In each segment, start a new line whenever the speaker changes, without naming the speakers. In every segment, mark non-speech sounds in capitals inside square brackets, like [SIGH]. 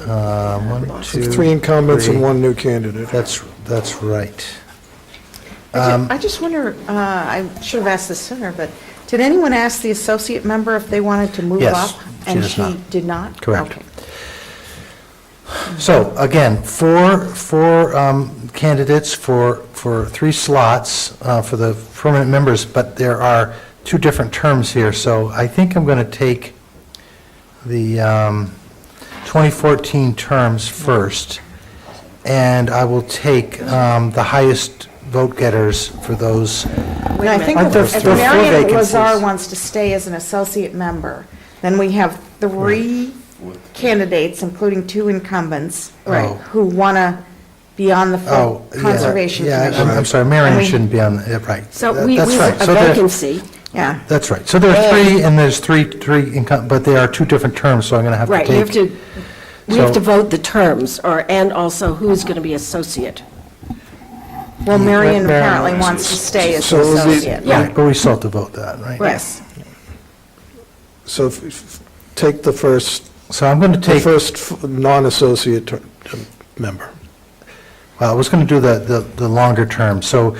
Uh, One,
So
two.
Three incumbents and
three.
one new candidate.
That's, that's right.
I
Um,
ju- I just wonder, uh, I should have asked this sooner, but did anyone ask the associate member if they wanted to move
Yes,
up?
she does
And she
not.
did not?
Correct.
Okay.
So again, four, four um, candidates for, for three slots uh, for the permanent members, but there are two different terms here. So I think I'm going to take the um, 2014 terms first, and I will take um, the highest vote getters for those.
And I think
Aren't there-
if if
there are four
Marion
vacancies?
Lazar wants to stay as an associate member, then we have three candidates, including two incumbents, Oh.
Right.
who want to be on the
Oh,
full
yeah,
Conservation
yeah, I'm-
Commission.
I'm sorry,
And
Marion
we-
shouldn't be on, the- yeah, right.
So
That-
we, we
that's
have
right.
a
So there-
vacancy,
Yeah.
That's right. So there are three, and there's three, three, income- but they are two different terms, so I'm going to have to
right, we have
take.
to, we have
So-
to vote the terms, or, and also who's going to be associate.
Well, Marion
Mm-hmm. Marion
apparently
wants-
wants to stay as
So
an
it would be-
associate.
Yeah.
But we still have to vote that, right?
Yes.
So if- if- take the first,
So I'm going to
the
take, well,
first f- non-associate ter- um, member.
I was going to do the, the the longer term. So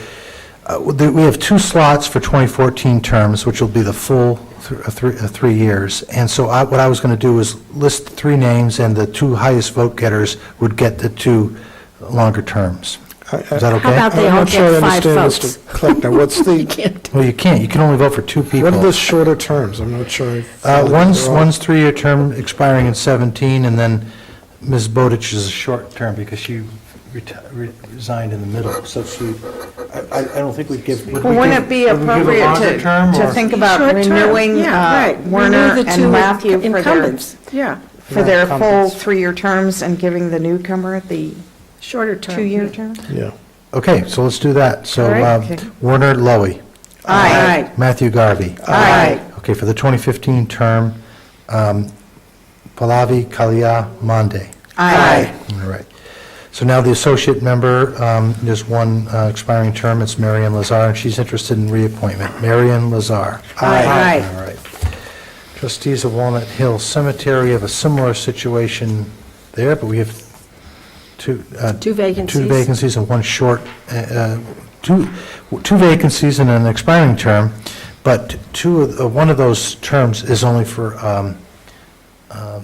uh, the- we have two slots for 2014 terms, which will be the full thr- uh, three, uh, three years. And so I- what I was going to do is list three names, and the two highest vote getters would get the two longer terms.
I- I-
Is that okay?
How about they
I'm
all
not sure I
get five
understand,
votes?
Mr.
[LAUGHS]
Kleckner, what's
You
the,
can't,
Well, you can't. You can only vote for two people.
what are the shorter terms? I'm not sure. I
Uh,
follow.
One's,
They're all-
one's three-year term expiring in 17, and then Ms. Bowditch is a short term because she reti- re- resigned in the middle, so she, I, I I don't think we'd give. would we
Well, Wouldn't
give-
it be
would we give a
appropriate
longer
to,
term,
to
or-
think about
Short term,
renewing
yeah,
uh,
right. Renew
Werner
the two
and Matthew for their,
Incumbents, yeah,
for their full
Incumbents.
three-year terms and giving the newcomer the
shorter term.
two-year
yeah.
term?
Yeah.
Okay, so let's do that. So
All right.
um, Werner Lowy,
Aye.
Matthew Garvey.
Aye.
Okay, for the 2015 term, um, Pallavi Kalia Monde.
Aye.
All right. So now the associate member, um, there's one uh, expiring term, it's Marion Lazar, and she's interested in reappointment. Marion Lazar.
Aye. Aye.
All right. Trustees of Walnut Hill Cemetery have a similar situation there, but we have two. uh,
Two vacancies.
Two vacancies and one short, uh, uh, two, two vacancies and an expiring term, but two, of- uh, one of those terms is only for um, uh,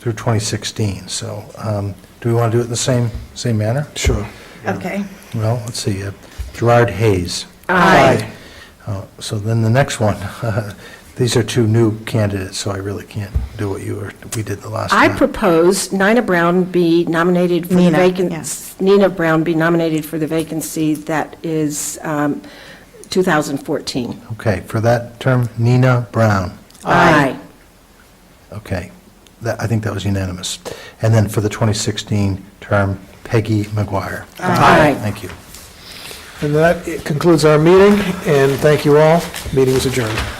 through 2016, so um, do we want to do it in the same, same manner?
Sure.
Okay.
Well, let's see, uh, Gerard Hayes.
Aye.
Uh, So then the next one, [LAUGHS] these are two new candidates, so I really can't do what you were, we did the last
I
time.
propose Nina Brown be nominated for the
Nina,
vacancy.
yes.
Nina Brown be nominated for the vacancy that is um, 2014.
Okay, for that term, Nina Brown.
Aye.
Okay, that, I think that was unanimous. And then for the 2016 term, Peggy McGuire.
Aye.
Thank you.
And that concludes our meeting, and thank you all. Meeting is adjourned.